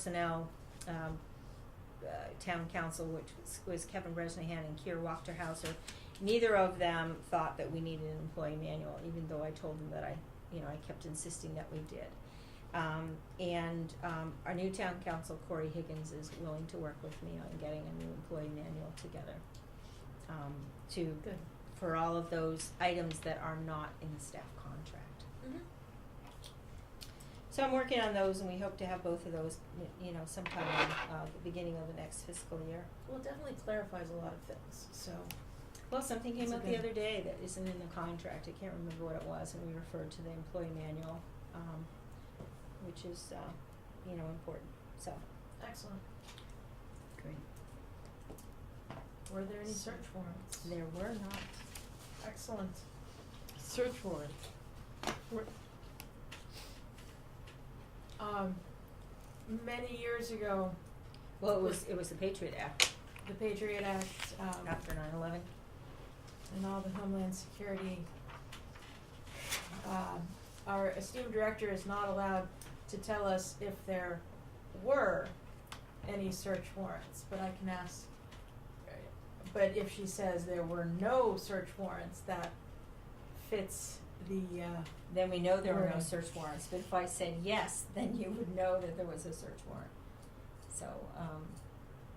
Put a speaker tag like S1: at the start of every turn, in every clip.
S1: personnel, um, uh, town council, which was- was Kevin Bresnahan and Kier Wachterhauser. Neither of them thought that we needed an employee manual, even though I told them that I, you know, I kept insisting that we did. Um, and, um, our new town council, Corey Higgins, is willing to work with me on getting a new employee manual together. Um, to,
S2: Good.
S1: for all of those items that are not in the staff contract. So I'm working on those, and we hope to have both of those, y- you know, sometime in uh, the beginning of the next fiscal year.
S2: Well, it definitely clarifies a lot of things, so.
S1: Well, something came up
S2: That's okay.
S1: the other day that isn't in the contract. I can't remember what it was, and we referred to the employee manual, um, which is, uh, you know, important. So,
S2: Excellent.
S1: great.
S2: Were there any search warrants?
S1: There were not.
S2: Excellent.
S3: Search warrant.
S2: We're- Um, many years ago,
S1: Well, it was it was the Patriot Act
S2: the Patriot Act, um,
S1: after 9/11.
S2: and all the Homeland Security, um, our esteemed director is not allowed to tell us if there were any search warrants, but I can ask. But if she says there were no search warrants, that fits the, uh,
S1: Then we know there were no
S2: Right.
S1: search warrants. But if I said yes, then you would know that there was a search warrant. So um,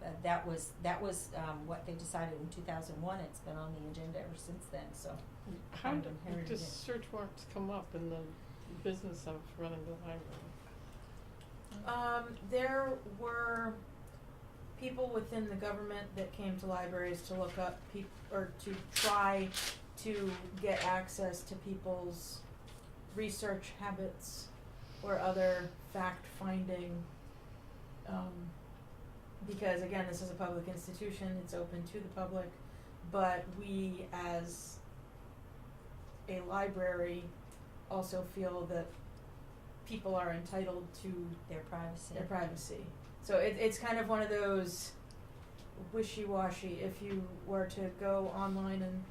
S1: uh, that was that was um, what they decided in 2001. It's been on the agenda ever since then. So
S3: How
S1: Kind
S3: do,
S1: of inherited
S3: does
S1: it.
S3: search warrants come up in the business of running the library?
S2: Um, there were people within the government that came to libraries to look up peop- or to try to get access to people's research habits or other fact finding. Um, because again, this is a public institution, it's open to the public, but we as a library also feel that people are entitled to
S1: their privacy.
S2: their privacy. So it, it's kind of one of those wishy-washy. If you were to go online and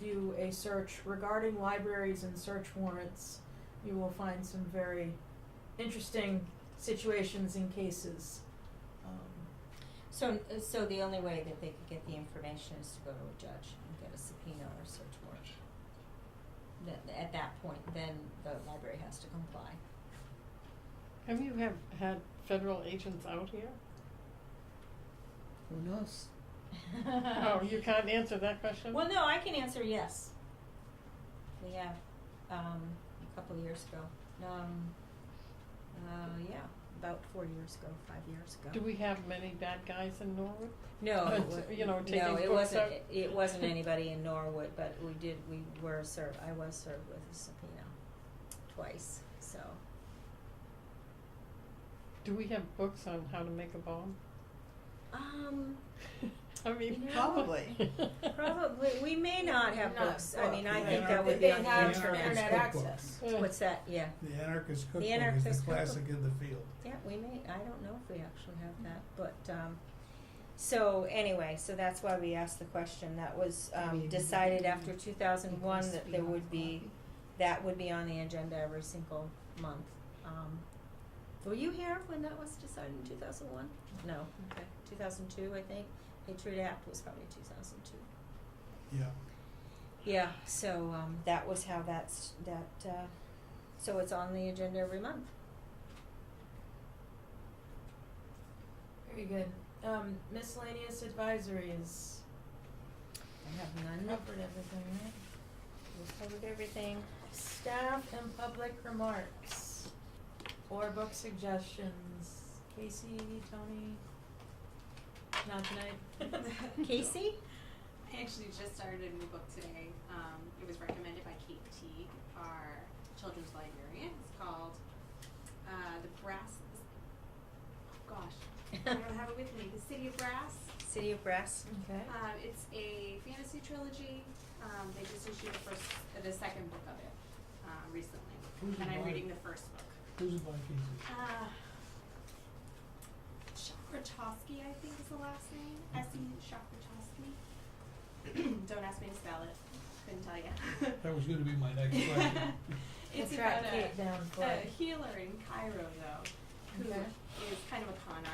S2: do a search regarding libraries and search warrants, you will find some very interesting situations and cases. Um,
S1: So, so the only way that they could get the information is to go to a judge and get a subpoena or a search warrant. That, at that point, then the library has to comply.
S3: Have you have had federal agents out here?
S4: Who knows?
S3: Oh, you can't answer that question?
S1: Well, no, I can answer yes. We have, um, a couple of years ago, um, uh, yeah, about four years ago, five years ago.
S3: Do we have many bad guys in Norwood?
S1: No,
S3: Uh,
S1: it wa-
S3: you know, take
S1: no,
S3: these
S1: it
S3: books
S1: wasn't.
S3: out.
S1: It, it wasn't anybody in Norwood, but we did. We were served. I was served with a subpoena twice. So
S3: Do we have books on how to make a bomb?
S1: um,
S3: I
S1: You
S3: mean.
S1: know-
S4: Probably.
S1: probably we may not have
S2: not
S1: books. I mean, I
S4: book.
S1: think
S4: Yeah.
S1: that would
S2: They
S1: be on the
S2: have
S1: internet.
S2: internet
S4: Cookbook.
S2: access.
S3: Uh,
S1: What's that? Yeah,
S5: The Anarchist Cookbook is
S1: Anarchist
S5: the classic
S1: Cookbook.
S5: in the field.
S1: yeah. We may. I don't know if we actually have that, but um, so anyway, so that's why we asked the question. That was um, decided after two thousand one that there would be. that would be on the agenda every single month. Um, were you here when that was decided in two thousand one? No, okay, two thousand two, I think. Patriot Act was probably two thousand two.
S5: Yeah.
S1: Yeah, so, um, that was how that's, that, uh, so it's on the agenda every month.
S2: Very good. Um, miscellaneous advisory is
S1: I have none.
S2: covered everything, right?
S1: We've covered everything.
S2: Staff and public remarks or book suggestions. Casey, Tony, not tonight.
S1: Casey?
S6: I actually just started a new book today. Um, it was recommended by Kate Teague, our children's librarian. It's called uh, The Brass. Oh gosh, I don't have it with me. The City of Brass.
S1: City of Brass?
S2: Okay.
S6: Um, it's a fantasy trilogy. Um, they just issued the first, uh, the second book of it um, recently,
S5: Who's
S6: and
S5: it
S6: I'm
S5: by?
S6: reading the first book.
S5: Who's it by Casey?
S6: Uh, Shakrachowski, I think is the last name. S E Shakrachowski. Don't ask me to spell it. Couldn't tell you.
S5: That was gonna be my next question.
S6: it's
S2: We'll track
S6: about
S2: Kate
S6: a,
S2: down for
S6: a
S2: it.
S6: healer in Cairo, though, who
S2: Okay.
S6: is kind of a con